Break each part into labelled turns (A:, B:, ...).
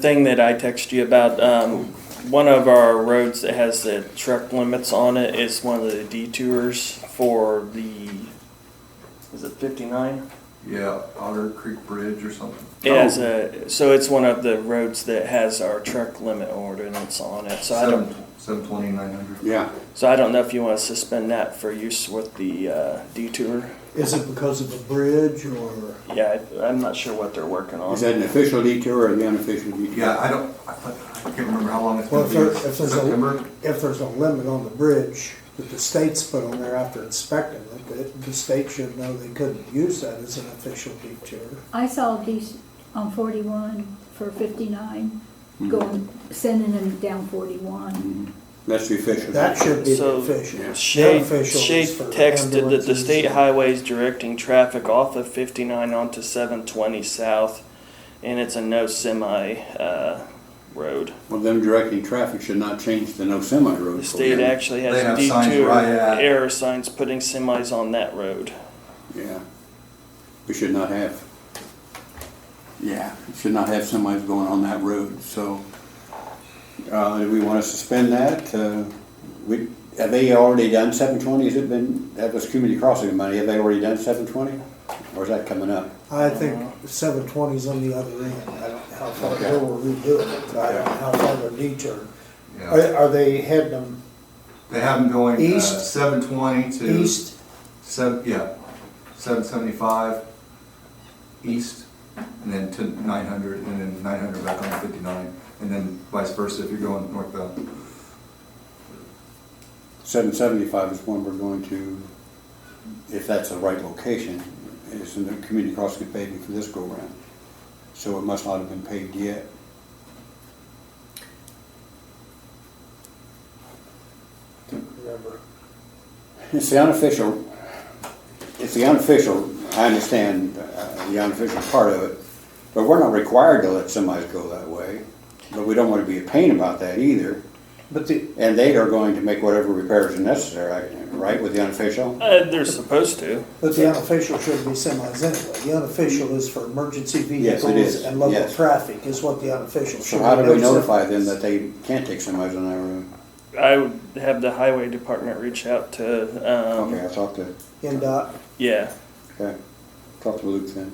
A: thing that I text you about, um, one of our roads that has the truck limits on it is one of the detours for the, is it fifty-nine?
B: Yeah, Otter Creek Bridge or something.
A: It has
C: Oh.
A: a, so it's one of the roads that has our truck limit ordinance on it, so I don't,
B: Seven twenty, nine hundred.
C: Yeah,
A: so I don't know if you wanna suspend that for use with the, uh, detour.
D: Is it because of a bridge or?
A: Yeah, I- I'm not sure what they're working on.
C: is that an official detour or the unofficial detour?
B: Yeah, I don't, I thought- I can't remember how long it's
D: Well,
B: gonna
D: if
B: be.
D: there, if there's
B: September?
D: a, Oh, if there's a limit on the bridge that the state's put on there after inspecting it, that the state should know they couldn't use that as an official detour.
E: I saw these on forty-one for fifty-nine, going, sending them down forty-one.
C: Mhm. That's the official.
D: That should be the
A: So-
D: official.
A: Shade,
D: Unofficial is
A: Shade
D: for
A: texted that the
D: ambulances.
A: state highways directing traffic off of 59 onto 720 south, and it's a no semi uh, road.
C: Well, them directing traffic should not change the no semi road.
A: The state
C: program.
A: actually
B: They
A: has
B: have signs
A: detour
B: right at-
A: error signs putting semis on that road.
C: Yeah, we should not have. Yeah, we should not have semis going on that road, so, uh, do we wanna suspend that? Uh, We, have they already done seven twenty? Has it been, that was community crossing money, have they already done seven twenty? Or is that coming up?
D: I think seven twenty's on the other end. I don't know how far they were redoing it, but I don't know how far they're detoured.
B: Yeah,
D: Are, are they heading them
B: they have them going, uh,
D: East?
B: seven twenty to.
D: east?
B: Seven, yeah, seven seventy-five east, and then to nine hundred, and then nine hundred back on fifty-nine, and then vice versa if you're going northbound.
C: Seven seventy-five is one we're going to, if that's the right location, is in the community crossing paving for this go-round. So it must not have been paved yet.
D: Remember,
C: It's the unofficial, it's the unofficial, I understand uh, the unofficial part of it, but we're not required to let semis go that way. But we don't want to be a pain about that either,
F: But the,
C: and they are going to make whatever repairs are necessary, right, with the unofficial?
A: Uh, they're supposed to.
D: But the unofficial should be semis anyway. The unofficial is for emergency
C: Yes, it is.
D: vehicles and local
C: Yes.
D: traffic is what the unofficial should
C: So
D: be.
C: how do we
D: There's a-
C: notify them that they can't take semis on that road?
A: I would have the highway department reach out to, um,
C: Okay, I'll talk to,
D: NDOT,
A: yeah.
C: okay, talk to Luke then.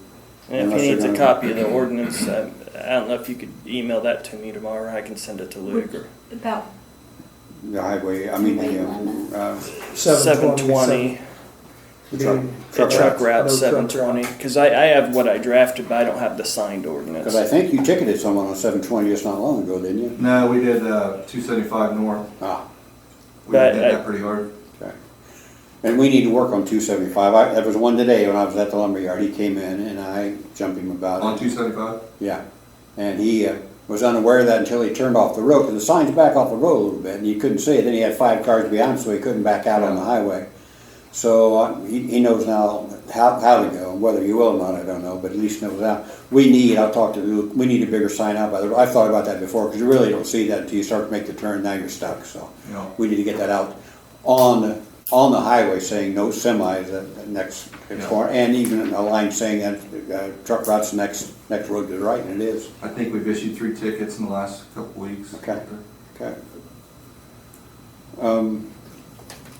A: And if
C: Unless
A: he needs
C: they're
A: a
C: gonna-
A: copy of the ordinance, I, I don't know if you could email that to me tomorrow. I can send it to Luke. Or,
E: About,
C: The highway, I mean, the, uh,
D: seven twenty.
C: uh, truck,
A: The
C: truck
A: truck
C: route.
A: route
D: No
A: seven
D: truck
A: twenty, cause I, I have what I drafted, but I don't have the signed ordinance.
C: Because I think you ticketed someone on seven twenty just not long ago, didn't you?
B: No, we did, uh, two seventy-five north,
C: Ah,
B: we
A: But,
B: did
A: uh,
B: that pretty hard.
C: Okay. And we need to work on two seventy-five. I, that was one today when I was at the lumberyard. He came in and I jumped him
B: On
C: about it.
B: two seventy-five?
C: Yeah. And he uh, was unaware of that until he turned off the road, because the sign's back off the road a little bit and you couldn't see it. Then he had five cars behind him, so he couldn't back out on the highway. So uh, he, he knows now how, how to go, whether he will or not, I don't know, but at least knows how. We need, I'll talk to Luke, we need a bigger sign out by the, I've thought about that before, because you really don't see that until you start to make the turn, now you're stuck, so.
B: Yeah.
C: We need to get that out on, on the highway saying no semis at the next
B: Yeah.
C: corner, and even a line saying that uh, truck route's the next, next road to the right, and it is,
B: I think we've issued three tickets in the last couple weeks.
C: Okay. okay? Um,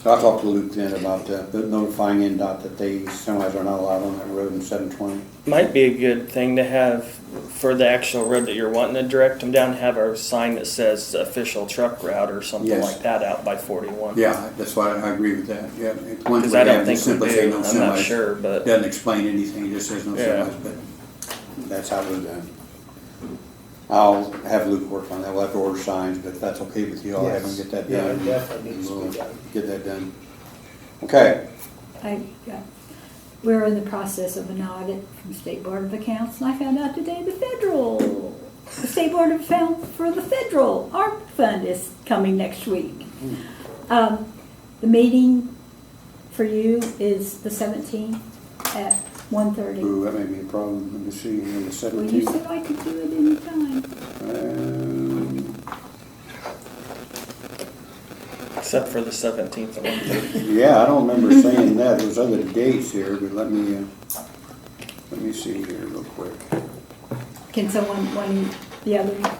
C: So I'll talk to Luke then about uh, notifying NDOT that they, semis are not allowed on that road in seven twenty.
A: Might be a good thing to have for the actual road that you're wanting to direct them down, have a sign that says official truck route or something
C: Yes.
A: like that out by forty-one.
C: Yeah, that's why I agree with that, yeah. It's one
A: Cause
C: thing
A: I
C: to
A: don't
C: have, just
A: think we
C: simply say
A: do,
C: no
A: I'm not
C: semis.
A: sure, but,
C: Doesn't explain anything, it just says no
A: Yeah.
C: semis, but that's how it was done. I'll have Luke work on that, we'll have to order signs, but if that's okay with you, I'll have him
D: Yes.
C: get that
D: Yeah,
C: done.
D: it definitely needs to be
C: We'll
D: done.
C: Get that done. Okay,
E: I, yeah, we're in the process of an audit from State Board of Accounts, and I found out today the federal, the State Board of Accounts for the federal ARP fund is coming next week. Um, the meeting for you is the seventeenth at one thirty.
C: ooh, that may be a problem, let me see, here, the
E: Well, you
C: seventeenth.
E: said I could do it anytime.
A: except for the seventeenth.
C: Um, Yeah, I don't remember saying that, there's other dates here, but let me, uh, let me see here real quick.
E: Can someone, one, the other